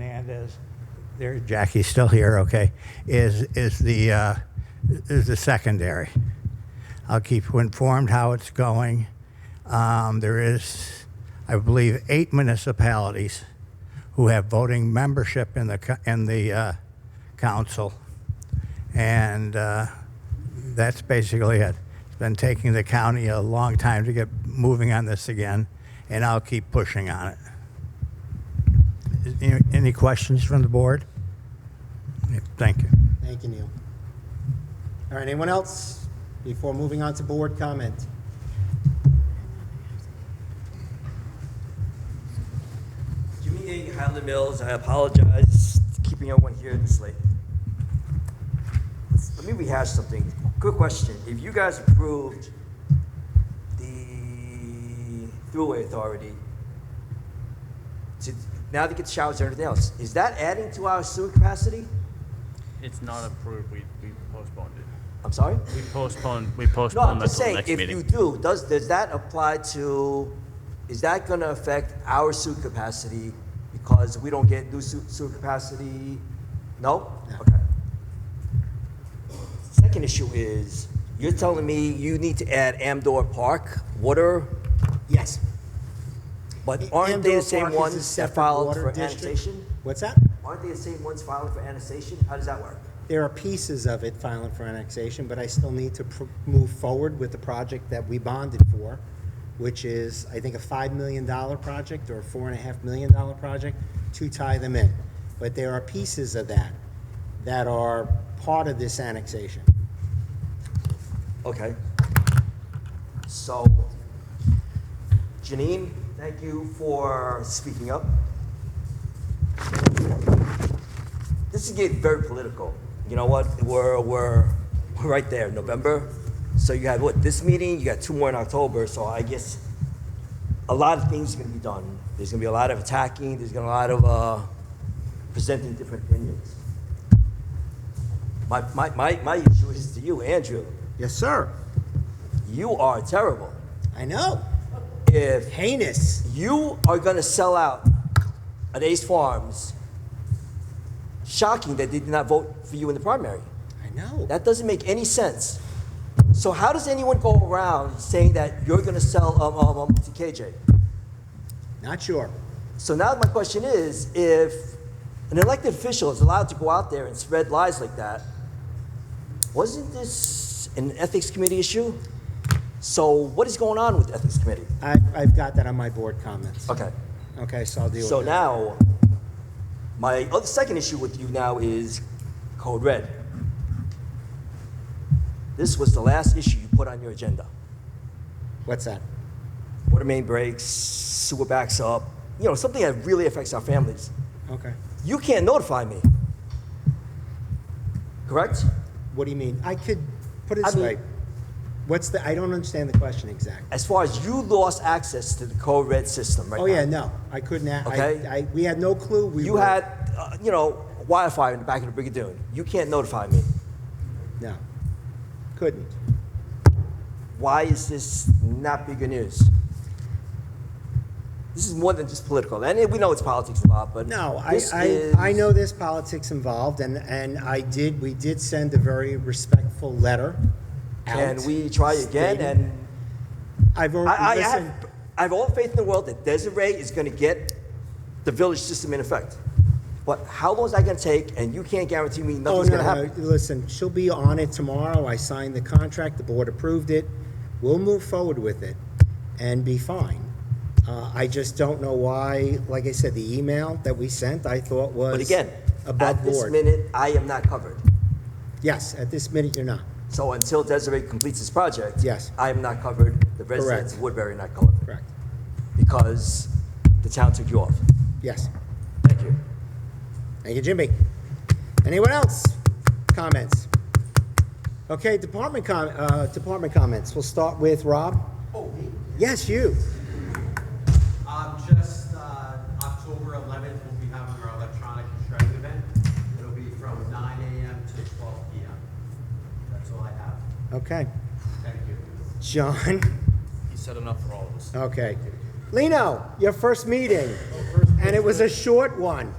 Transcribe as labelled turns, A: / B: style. A: Hernandez, there, Jackie's still here, okay, is, is the, uh, is the secondary. I'll keep you informed how it's going. Um, there is, I believe, eight municipalities who have voting membership in the, co- in the, uh, council. And, uh, that's basically it. It's been taking the county a long time to get moving on this again, and I'll keep pushing on it. Any- Any questions from the board? Yeah, Thank you.
B: Thank you, Neil. All right, anyone else before moving on to board comment?
C: Jimmy A. Highland Mills, I apologize for keeping everyone here this late. Let me rehash something. Good question. If you guys approved the throughway authority, to, now they get showers and everything else, is that adding to our sewer capacity?
D: It's not approved, we, we postponed it.
C: I'm sorry?
D: We postponed, we
C: No, I'm
D: postponed that
C: just
D: till the
C: saying,
D: next
C: if you
D: meeting.
C: do, does, does that apply to, is that gonna affect our sewer capacity because we don't get new sewer, sewer capacity? No?
B: No.
C: Okay. Second issue is, you're telling me you need to add Amdor Park water,
B: Yes.
C: but aren't they
B: Amdahl
C: the
B: Park
C: same
B: is a
C: ones that
B: separate
C: filed
B: water
C: for
B: district.
C: annexation?
B: What's that?
C: Aren't they the same ones filing for annexation? How does that work?
B: There are pieces of it filing for annexation, but I still need to pr- move forward with the project that we bonded for, which is, I think, a $5 million project or a $4.5 million project to tie them in. But there are pieces of that that are part of this annexation.
C: Okay. So, Janine, thank you for speaking up. This is getting very political. You know what? We're, we're, we're right there, November. So you got what, this meeting, you got two more in October, so I guess a lot of things are gonna be done. There's gonna be a lot of attacking, there's gonna be a lot of, uh, presenting different opinions. My, my, my, my issue is to you, Andrew.
B: Yes, sir.
C: You are terrible.
B: I know.
C: If
B: Heinous.
C: you are going to sell out at Ace Farms, shocking that they did not vote for you in the primary.
B: I know.
C: That doesn't make any sense. So how does anyone go around saying that you're going to sell um, um, um, to KJ?
B: Not sure.
C: So now my question is, if an elected official is allowed to go out there and spread lies like that, wasn't this an ethics committee issue? So what is going on with the ethics committee?
B: I've, I've got that on my board comments.
C: Okay.
B: Okay, so I'll deal with that.
C: So now, my other second issue with you now is Code Red. This was the last issue you put on your agenda.
B: What's that?
C: Water main breaks, sewer backs up, you know, something that really affects our families.
B: Okay.
C: You can't notify me. Correct?
B: What do you mean? I could, put it
C: I
B: this
C: mean-
B: way. What's the, I don't understand the question exactly.
C: As far as you lost access to the Code Red system right now.
B: Oh, yeah, no, I couldn't, a-
C: Okay.
B: I, I, we had no clue. We
C: You
B: were-
C: had, uh, you know, wildfire in the back of the Brigadoon. You can't notify me.
B: No, couldn't.
C: why is this not bigger news? This is more than just political. And we know it's politics involved, but
B: No, I,
C: this
B: I,
C: is-
B: I know there's politics involved and, and I did, we did send a very respectful letter out.
C: Can we try again?
B: stating-
C: And
B: I've
C: I, I
B: already, listen,
C: have, I have all faith in the world that Desiree is going to get the village system in effect. But how long is that going to take? And you can't guarantee me
B: Oh,
C: nothing's
B: no,
C: going to
B: no,
C: happen.
B: listen, she'll be on it tomorrow. I signed the contract, the board approved it. We'll move forward with it and be fine. Uh, I just don't know why, like I said, the email that we sent, I thought was
C: But again,
B: above
C: at this
B: board.
C: minute, I am not covered.
B: Yes, at this minute, you're not.
C: So until Desiree completes this project,
B: Yes.
C: I am not covered. The residents of
B: Correct.
C: Woodbury are not covered
B: Correct.
C: because the town took you off.
B: Yes.
C: Thank you.
B: Thank you, Jimmy. Anyone else? Comments? Okay, department com, uh, department comments. We'll start with Rob.
E: Oh, me?
B: Yes, you.
E: Um, just, uh, October eleventh, we'll be having our electronic and shredding event. It'll be from nine AM to twelve PM. That's all I have.
B: Okay.
E: Thank you.
B: John?
D: He said enough for all of us.
B: Okay. Lino, your first meeting, and it was a short one.